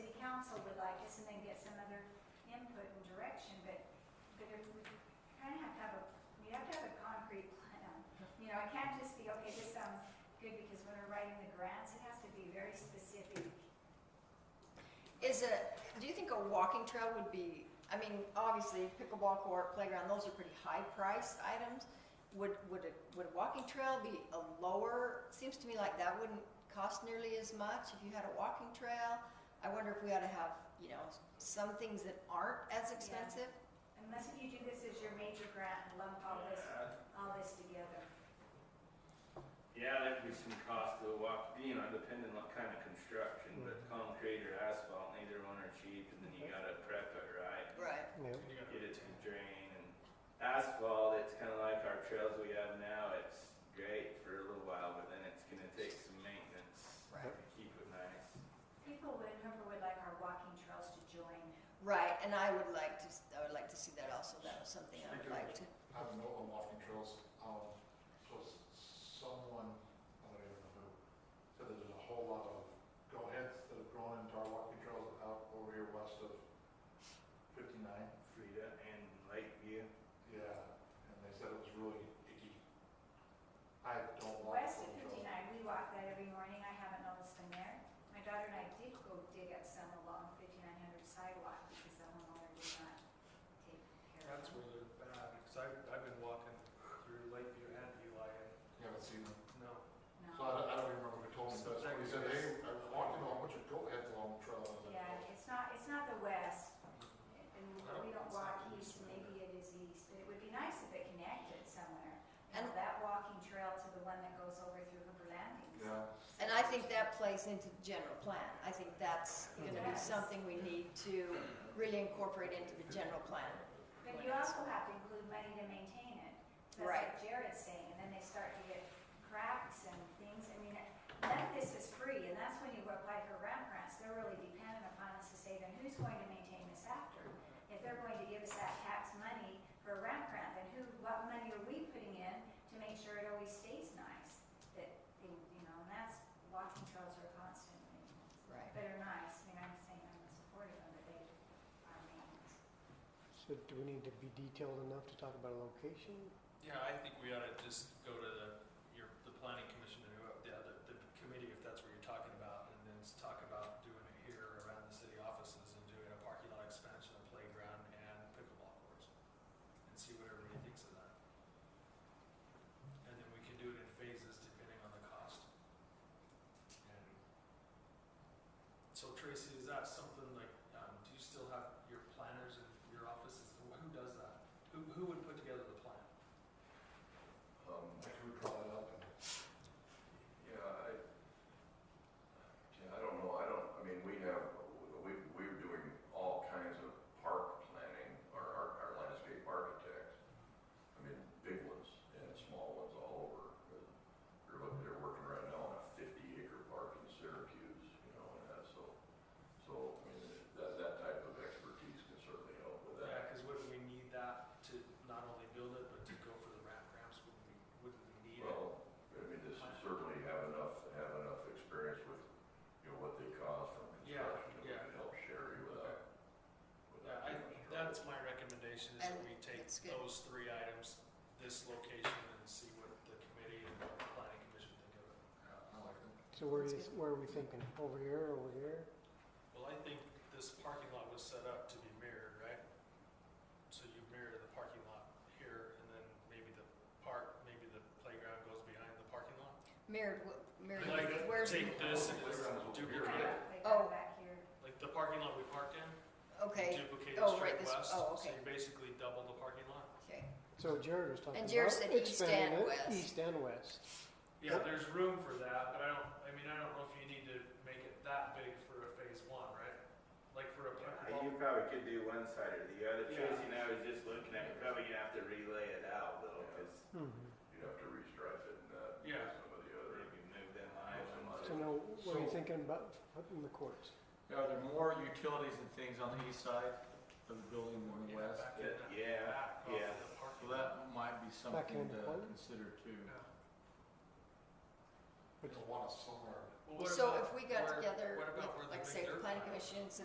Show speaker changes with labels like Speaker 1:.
Speaker 1: and then get some other input and direction, but, but if we kind of have to have a, we have to have a concrete plan. You know, it can't just be, okay, this sounds good, because when we're writing the grants, it has to be very specific.
Speaker 2: Is a, do you think a walking trail would be, I mean, obviously pickleball court, playground, those are pretty high priced items. Would, would a, would a walking trail be a lower, seems to me like that wouldn't cost nearly as much if you had a walking trail. I wonder if we ought to have, you know, some things that aren't as expensive.
Speaker 1: Unless you do this as your major grant and lump all Oh, this,
Speaker 3: Yeah,
Speaker 1: all this together.
Speaker 3: Yeah, there could be some cost to the walk, you know, depending on kind of construction, but concrete or asphalt, neither one are cheap, and then you gotta prep it right,
Speaker 2: Right.
Speaker 4: Yeah.
Speaker 3: get it to drain, and asphalt, it's kind of like our trails we have now, it's great for a little while, but then it's gonna take some maintenance
Speaker 2: Right.
Speaker 3: to keep it nice.
Speaker 1: People would, whoever would like our walking trails to join.
Speaker 2: Right, and I would like to, s- I would like to see that also, that was something I would like to,
Speaker 5: I have a note on walking trails, um, so s- someone, I don't even know who, said that there's a whole lot of go-aheads that have grown into our walking trails out over here west of fifty-nine.
Speaker 3: Frida and Lakeview,
Speaker 5: Yeah, and they said it was really icky. I don't walk
Speaker 1: West of
Speaker 5: walking trails.
Speaker 1: fifty-nine, we walk that every morning, I haven't noticed them there. My daughter and I did go dig up some along fifty-nine hundred sidewalk because the homeowner did not take care of
Speaker 6: That's
Speaker 1: them.
Speaker 6: where they're bad, because I've, I've been walking through Lakeview and Eli and
Speaker 5: You haven't seen them.
Speaker 6: no.
Speaker 5: So
Speaker 1: No,
Speaker 5: I, I don't even remember who told me
Speaker 6: So
Speaker 5: this, but he said,
Speaker 6: that
Speaker 5: hey,
Speaker 6: was-
Speaker 5: I walked in on a bunch of go-aheads along the trail. and I was like,
Speaker 1: yeah, it's not, it's not the west. And
Speaker 6: No,
Speaker 1: we don't
Speaker 6: it's
Speaker 1: walk
Speaker 6: not
Speaker 1: east,
Speaker 6: east.
Speaker 1: maybe it is east, but it would be nice if it connected somewhere. You know,
Speaker 2: And-
Speaker 1: that walking trail to the one that goes over through Hooper Landings.
Speaker 5: Yeah,
Speaker 2: and I think that plays into the general plan. I think that's gonna be
Speaker 1: Yes.
Speaker 2: something we need to really incorporate into the general plan.
Speaker 1: But you also have to include money to maintain it. That's
Speaker 2: Right.
Speaker 1: what Jared's saying, and then they start to get cracks and things. I mean, none of this is free, and that's when you apply for ramp grants. They're really dependent upon us to say, then who's going to maintain this after? If they're going to give us that tax money for a ramp grant, then who, what money are we putting in to make sure it always stays nice? That, they- you know, and that's, walking trails are constant,
Speaker 2: Right.
Speaker 1: but are nice. I mean, I'm saying I'm supportive of it, they are maintenance.
Speaker 4: So do we need to be detailed enough to talk about a location?
Speaker 6: Yeah, I think we ought to just go to the, your, the planning commission and whoever, the other, the committee, if that's what you're talking about, and then s- talk about doing it here around the city offices and doing a parking lot expansion, a playground, and pickleball courts. And see what everybody thinks of that. And then we can do it in phases depending on the cost. And So Tracy, is that something like, um, do you still have your planners in your offices? Who who does that? Who, who would put together the plan?
Speaker 5: um, I could draw that up and
Speaker 7: Yeah, I, yeah, I don't know, I don't, I mean, we have, we, we're doing all kinds of park planning, our, our, our landscape architects. I mean, big ones and small ones all over. They're looking, they're working right now on a fifty acre park in Syracuse, you know, and that, so, so, I mean, that, that type of expertise can certainly help with
Speaker 6: Yeah,
Speaker 7: that.
Speaker 6: because wouldn't we need that to not only build it, but to go for the ramp ramps, wouldn't we, wouldn't we need it?
Speaker 7: Well, I mean, this is certainly have enough, have enough experience with, you know, what they cost from
Speaker 6: Yeah,
Speaker 7: construction. that we
Speaker 6: yeah.
Speaker 7: can Help Sherry uh, without,
Speaker 6: Yeah,
Speaker 7: without
Speaker 6: I,
Speaker 7: too much trouble.
Speaker 6: that's my recommendation, is that
Speaker 2: And
Speaker 6: we take
Speaker 2: it's good.
Speaker 6: those three items, this location, and see what the committee and the planning commission think of it.
Speaker 5: I like them.
Speaker 4: So where
Speaker 2: That's
Speaker 4: is, where are we thinking? Over here, over here?
Speaker 6: Well, I think this parking lot was set up to be mirrored, right? So you mirror the parking lot here, and then maybe the park, maybe the playground goes behind the parking lot?
Speaker 2: Mirrored, wh-
Speaker 6: Like,
Speaker 2: mirrored, where's,
Speaker 6: take this and just
Speaker 5: Playground's over here,
Speaker 1: They
Speaker 6: duplicate, it.
Speaker 1: go
Speaker 2: Oh.
Speaker 1: back here.
Speaker 6: like the parking lot we parked in?
Speaker 2: okay,
Speaker 6: duplicate
Speaker 2: Oh, right,
Speaker 6: straight
Speaker 2: this-
Speaker 6: west,
Speaker 2: oh,
Speaker 6: so
Speaker 2: okay.
Speaker 6: you basically double the parking lot.
Speaker 2: okay.
Speaker 4: So Jared was talking
Speaker 2: And
Speaker 4: about
Speaker 2: Jared said east
Speaker 4: expanding
Speaker 2: and
Speaker 4: it
Speaker 2: west.
Speaker 4: East and west.
Speaker 6: Yeah, there's room for that, but I don't, I mean, I don't know if you need to make it that big for a phase one, right? Like for a,
Speaker 3: Yeah, You
Speaker 6: well,
Speaker 3: probably could do one side or the other,
Speaker 6: Yeah.
Speaker 3: Tracy and I was just looking at, we're probably gonna have to relay it out though, cause
Speaker 4: Mhm.
Speaker 7: You'd have to restripe it and that,
Speaker 6: Yeah.
Speaker 7: some of the other.
Speaker 3: maybe move them lines and.
Speaker 4: So now, what are you
Speaker 8: So-
Speaker 4: thinking about putting the courts?
Speaker 8: Are there more utilities and things on the east side of the building than the
Speaker 6: yeah,
Speaker 8: west?
Speaker 6: back in that,
Speaker 3: Yeah,
Speaker 6: back off
Speaker 3: yeah.
Speaker 6: of the
Speaker 8: So
Speaker 6: parking lot.
Speaker 8: that might be
Speaker 4: in
Speaker 8: something to
Speaker 4: the corner?
Speaker 8: consider too.
Speaker 5: But you want us somewhere
Speaker 6: Well, what
Speaker 2: So if
Speaker 6: about
Speaker 2: we got
Speaker 6: where-
Speaker 2: together
Speaker 6: what about where
Speaker 2: with,
Speaker 6: the
Speaker 2: like
Speaker 6: big
Speaker 2: say, the
Speaker 6: dirt
Speaker 2: planning
Speaker 6: pile is?
Speaker 2: commission, city